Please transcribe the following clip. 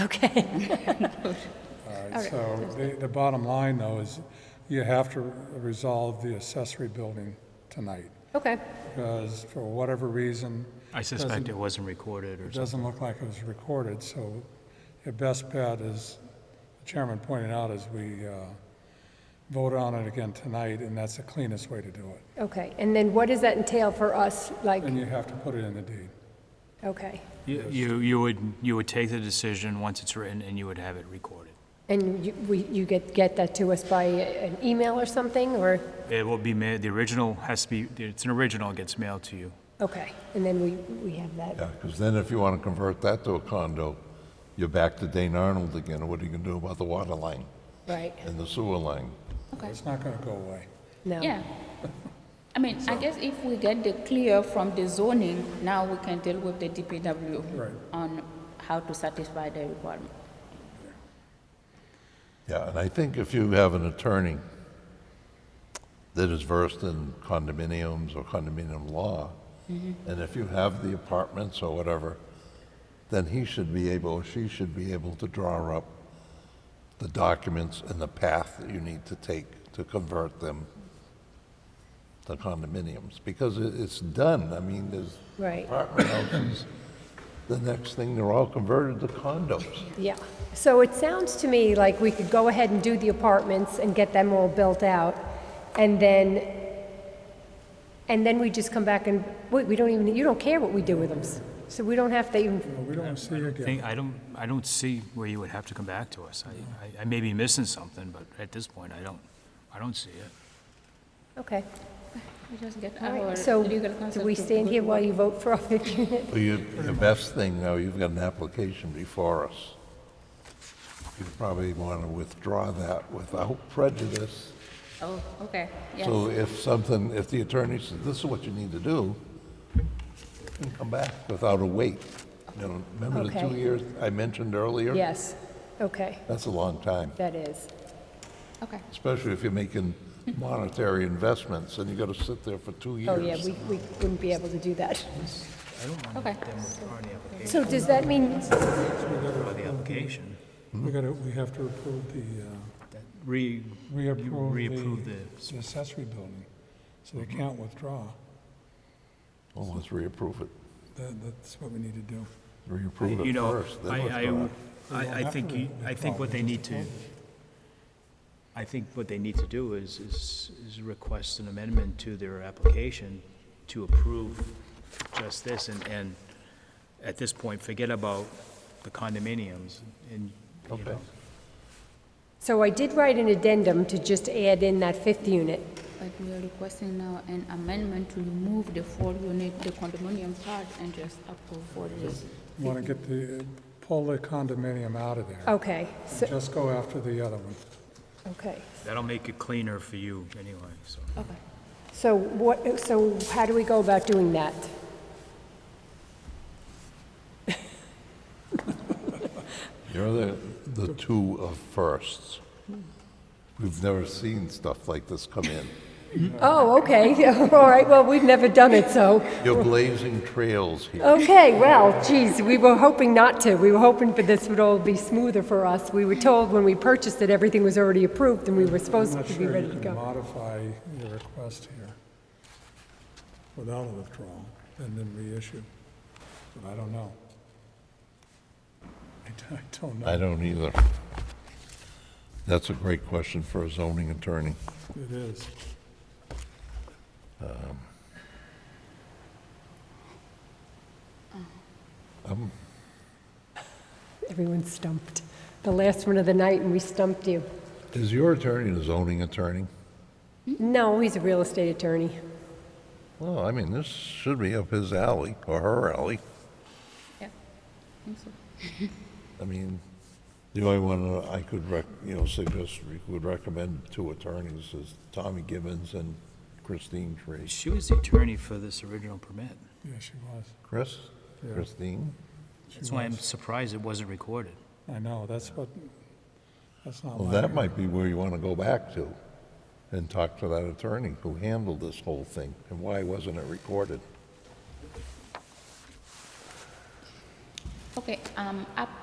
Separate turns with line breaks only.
Okay.
All right, so the, the bottom line though is you have to resolve the accessory building tonight.
Okay.
Because for whatever reason,
I suspect it wasn't recorded or
it
something.
doesn't look like it was recorded, so your best bet is, the chairman pointed out, is we, uh, vote on it again tonight, and that's the cleanest way to do it.
Okay. And then what does that entail for us? Like,
And you have to put it in the deed.
okay.
You, you- you would, you would take the decision once it's written and you would have it recorded.
And you, we, you get, get that to us by an email or something, or,
It will be made, the original has to be, it's an original, it gets mailed to you.
okay. And then we, we have that.
Yeah, because then if you want to convert that to a condo, you're back to Dane Arnold again, and what are you going to do about the water line
Right.
and the sewer line?
Okay,
It's not gonna go away.
No.
yeah. I mean, I guess if we get the clear from the zoning, now we can deal with the
Right.
DPW on how to satisfy the requirement.
Yeah, and I think if you have an attorney that is versed in condominiums or condominium law, and if you have the apartments or whatever, then he should be able, or she should be able to draw up the documents and the path that you need to take to convert them to condominiums, because it- it's done, I mean, there's
Right.
apartment houses, the next thing, they're all converted to condos.
Yeah. So it sounds to me like we could go ahead and do the apartments and get them all built out, and then, and then we just come back and, wait, we don't even, you don't care what we do with them. So we don't have to even,
Well, we don't see
I
again.
think, I don't, I don't see where you would have to come back to us. I, I- I may be missing something, but at this point, I don't, I don't see it.
okay.
We just get
All
our
right, so
legal
do
counsel
we
to
stand
go
here
to
while
work.
you vote for our 50 unit?
Well, you, your best thing, though, you've got an application before us. You probably want to withdraw that without prejudice.
Oh, okay, yes.
So if something, if the attorney says, this is what you need to do, you can come back without a wait. You know, remember the two
Okay.
years I mentioned earlier?
Yes, okay,
That's a long time,
that is.
Okay,
especially if you're making monetary investments and you got to sit there for two years.
Oh, yeah, we, we wouldn't be able to do that.
okay.
So does that mean,
The application.
We gotta, we have to approve the, uh,
Re,
We
you
approve
reapprove
the-
the,
the accessory building, so they can't withdraw.
Well, let's reapprove it.
That, that's what we need to do.
Reapprove
you
it
know,
first,
I, I,
then
I I think, you- I think what they need to, I think what they need to do is, is, is request an amendment to their application to approve just this, and, and at this point, forget about the condominiums, and, you
withdraw.
know.
Okay.
so I did write an addendum to just add in that fifth unit.
But we are requesting now an amendment to remove the four unit, the condominium part and just approve for this.
Want to get the, pull the condominium out of there.
Okay, so,
Just go after the other one.
okay.
That'll make it cleaner for you anyway, so.
Okay.
So what, so how do we go about doing that?
You're the, the two of firsts. We've never seen stuff like this come in.
Oh, okay, all right, well, we've never done it, so,
You're blazing trails here.
okay, well, geez, we were hoping not to. We were hoping that this would all be smoother for us. We were told when we purchased that everything was already approved and we were
I'm
supposed
not
to be
sure
ready
you
to
can
go.
modify your request here without a withdrawal and then reissue, but I don't know. I d- I don't know.
I don't either. That's a great question for a zoning attorney.
It is.
Everyone's stumped. The last one of the night and we stumped you.
Is your attorney a zoning attorney?
No, he's a real estate attorney.
Well, I mean, this should be up his alley or her alley.
Yeah, I think so.
I mean, the only one I could rec, you know, suggest, would recommend two attorneys is Tommy Gibbons and Christine Tree.
She was the attorney for this original permit.
Yeah, she was.
Chris? Christine?
That's why I'm surprised it wasn't recorded.
I know, that's what, that's not
Well,
like.
that might be where you want to go back to and talk to that attorney who handled this whole thing and why wasn't it recorded?
Okay, um, up